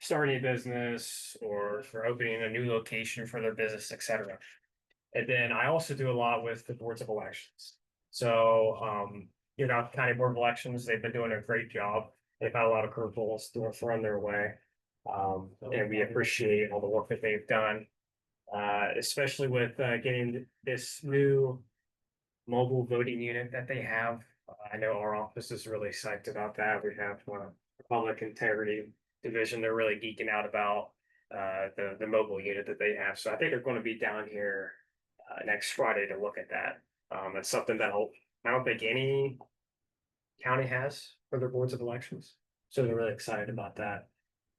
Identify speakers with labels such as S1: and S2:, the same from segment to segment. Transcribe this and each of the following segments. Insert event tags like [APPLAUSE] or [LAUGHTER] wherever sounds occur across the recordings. S1: starting a business or for opening a new location for their business, et cetera. And then I also do a lot with the boards of elections. So, um, you know, county board of elections, they've been doing a great job. They've had a lot of curveballs thrown thrown their way. Um, and we appreciate all the work that they've done. Uh, especially with, uh, getting this new mobile voting unit that they have. Uh, I know our office is really psyched about that. We have, uh, public integrity division. They're really geeking out about, uh, the, the mobile unit that they have. So I think they're gonna be down here, uh, next Friday to look at that. Um, it's something that'll, I don't think any county has for their boards of elections. So they're really excited about that.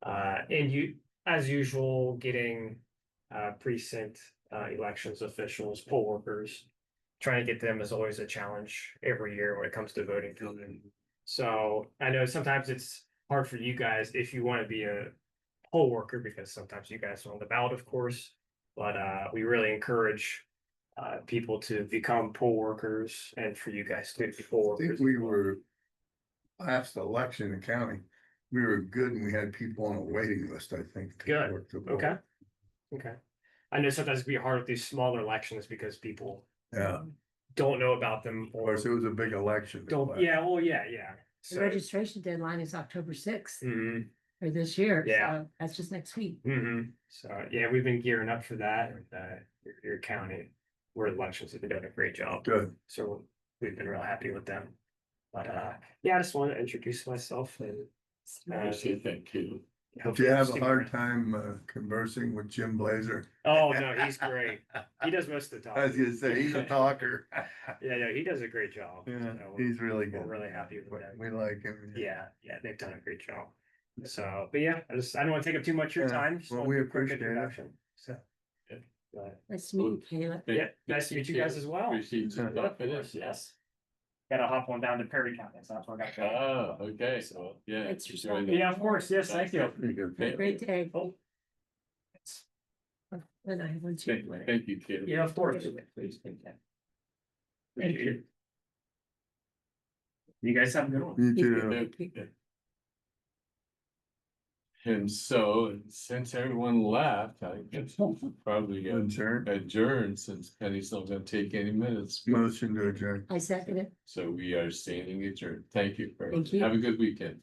S1: Uh, and you, as usual, getting uh precinct uh elections officials, poll workers. Trying to get them is always a challenge every year when it comes to voting. So I know sometimes it's hard for you guys if you want to be a poll worker because sometimes you guys are on the ballot, of course. But uh, we really encourage uh people to become poll workers and for you guys to be poll
S2: I think
S1: workers.
S2: we were. Last election in county, we were good and we had people on a waiting list, I think. to
S1: Good.
S2: work the
S1: Okay.
S2: vote. Mm-hmm.
S1: Okay. I know sometimes it'd be hard with these smaller elections because people
S2: Yeah,
S3: Um,
S1: don't know about them
S2: of
S1: or
S2: course, it was a big election.
S1: don't, yeah, well, yeah, yeah.
S3: The
S1: So,
S3: registration deadline is October sixth
S1: hmm
S3: for this year.
S1: Yeah.
S3: so That's just next week.
S1: hmm So, yeah, we've been gearing up for that, uh, your, your county, where elections have been doing a great job,
S2: Good.
S1: so we've been real happy with them. But, uh, yeah, I just want to introduce myself and. uh,
S4: Thank you.
S2: Do
S1: hopefully
S2: you have a
S1: stick
S2: hard
S1: around.
S2: time uh, conversing with Jim Blazer? [LAUGHS]
S1: Oh, no, he's great. He does most of the
S2: I was
S1: talking.
S2: gonna say,
S1: [LAUGHS]
S2: he's a talker.
S1: Yeah, no, he does a great job.
S2: Yeah,
S1: so we're-
S2: he's really
S1: We're
S2: good.
S1: really happy with that.
S2: We like him.
S1: Yeah, yeah, they've done a great job. So, but yeah, I just, I don't want to take up too much of your
S2: Yeah,
S1: time. just
S2: well,
S1: wanted
S2: we
S1: to do a quick
S2: appreciate it.
S1: introduction, So. But,
S3: Nice to meet you, Kayla.
S1: Yeah, nice to meet you guys as well.
S4: Received some
S1: Yeah,
S4: stuff
S1: of
S4: in
S1: course,
S4: it.
S1: Yes. Gotta hop on down to Perry County, so that's where I got.
S4: Ah, okay, so, yeah.
S3: Thanks for
S4: you're
S3: stopping.
S4: doing that.
S1: Yeah, of course, yes, thank
S4: Thank
S1: you.
S4: you.
S3: Great day.
S1: Oh.
S3: And I have one too.
S4: Thank- Thank you, Kim.
S1: Yeah, of course.
S3: Thank you.
S1: You guys have a good one.
S2: You too.
S4: And so, and since everyone left, I guess we'll probably uh,
S2: Adjourn.
S4: adjourn since Penny's not gonna take any minutes.
S2: Motion to adjourn.
S3: I second it.
S4: So we are standing adjourned. Thank you. very
S3: Thank
S4: much.
S3: you.
S4: Have a good weekend.